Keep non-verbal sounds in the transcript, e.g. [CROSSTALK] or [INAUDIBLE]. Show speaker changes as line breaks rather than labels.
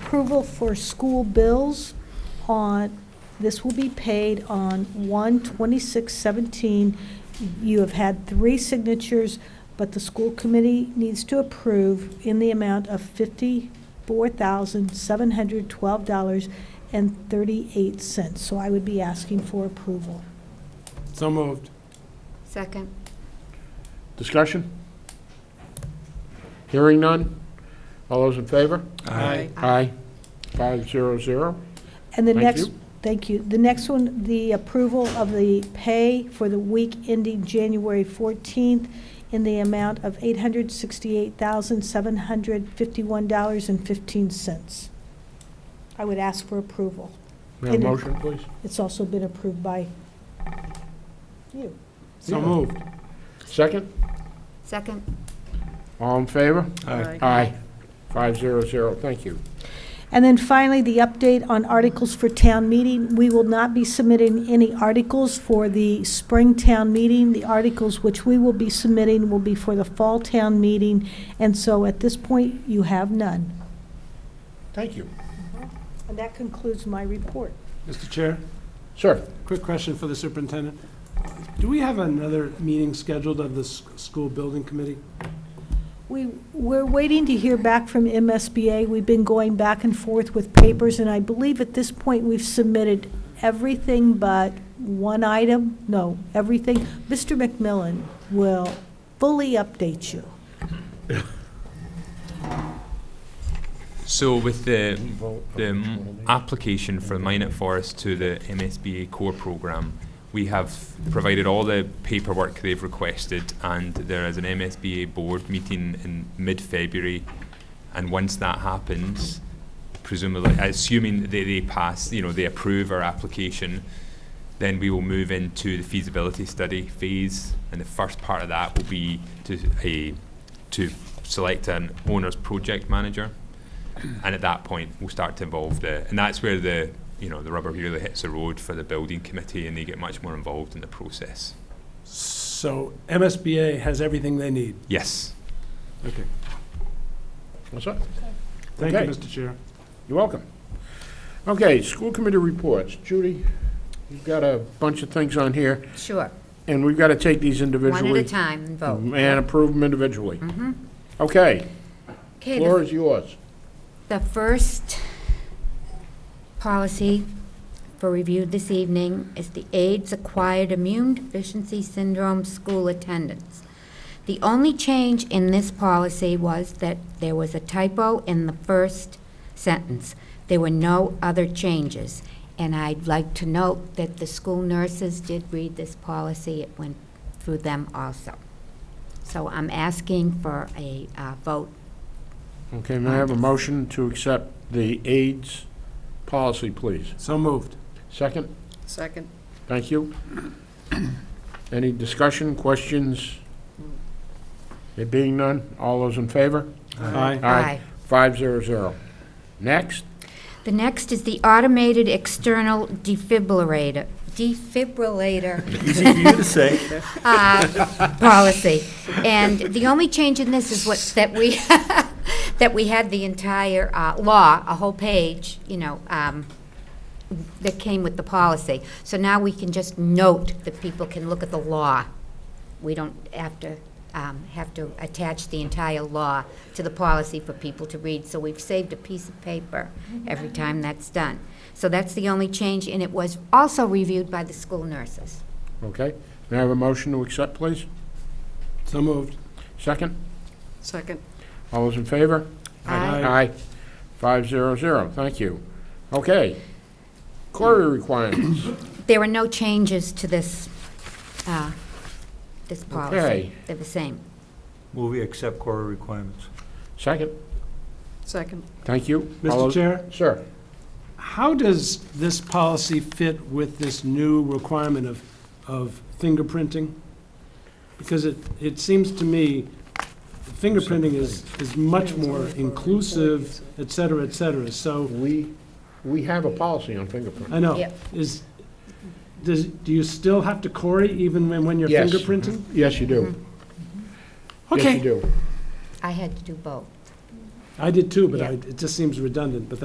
approval for school bills on, this will be paid on 1/26/17. You have had three signatures, but the school committee needs to approve in the amount of $54,712.38. So I would be asking for approval.
So moved.
Second.
Discussion? Hearing none? All those in favor?
Aye.
Aye. Five zero zero.
And the
Thank
next,
you.
thank you. The next one, the approval of the pay for the week ending January 14th in the amount of $868,751.15. I would ask for approval.
May I have a
Aye.
motion, please?
It's also been approved by you.
So moved.
Second?
Second.
All in favor?
Aye.
Aye. Five zero zero. Thank you.
And then finally, the update on articles for town meeting. We will not be submitting any articles for the spring town meeting. The articles which we will be submitting will be for the fall town meeting, and so at this point, you have none.
Thank you.
And that concludes my report.
Mr. Chair,
Sir?
quick question for the superintendent. Do we have another meeting scheduled of the s- school building committee?
We, we're waiting to hear back from MSBA. We've been going back and forth with papers, and I believe at this point, we've submitted everything but one item, no, everything. Mr. McMillan will fully update you.
So with the, the m- application for Minot Forest to the MSBA core program, we have provided all the paperwork they've requested and there is an MSBA board meeting in mid-February. And once that happens, presumably, assuming they, they pass, you know, they approve our application, then we will move into the feasibility study phase. And the first part of that will be to a, to select an owner's project manager and at that point we'll start to involve the and that's where the you know the rubber really hits the road for the building committee and they get much more involved in the process
So MSBA has everything they need.
yes
Okay.
What's up?
Thank you,
Okay.
Mr. Chair.
You're welcome. Okay, school committee reports. Judy, you've got a bunch of things on here,
Sure.
and we've got to take these individually.
One at a time Oh. Mm-hmm. and vote.
And approve them individually. Okay,
Okay, the
floor is yours.
The first policy for review this evening is the AIDS Acquired Immune Deficiency Syndrome School Attendance. The only change in this policy was that there was a typo in the first sentence. There were no other changes. And I'd like to note that the school nurses did read this policy. It went through them also. So I'm asking for a uh, vote
Okay, may I have a motion to accept the AIDS policy, please?
So moved.
Second?
Second.
Thank you. Any discussion, questions? There being none, all those in favor?
Aye.
aye.
Five zero zero. Next?
The next is the automated external defibrillator, defibrillator
Easy for you to say.
uh, policy. And the only change in this is what, that we, [LAUGHS] that we had the entire uh, law, a whole page, you know, um, that came with the policy. So now we can just note that people can look at the law. We don't have to, um, have to attach the entire law to the policy for people to read. So we've saved a piece of paper every time that's done. So that's the only change, and it was also reviewed by the school nurses.
Okay, may I have a motion to accept, please?
So moved.
Second?
Second.
All those in favor?
Aye.
Aye. Five zero zero, thank you. Okay. Query requirements.
There were no changes to this, uh, this
Okay.
policy. They're the same.
Will we accept quorum requirements?
Second,
Second.
thank you. All
Mr.
those-
Chair,
Sir,
how does this policy fit with this new requirement of, of fingerprinting? Because it, it seems to me fingerprinting is, is much more inclusive, et cetera, et cetera. So
we, we have a policy on fingerprinting.
I know.
Yep.
Is, does, do you still have to Corey even when, when you're
Yes.
fingerprinting?
Yes, you do. Yes, you
Okay.
do.
I had to do both.
I did too, but I,
Yeah.
it just seems redundant, but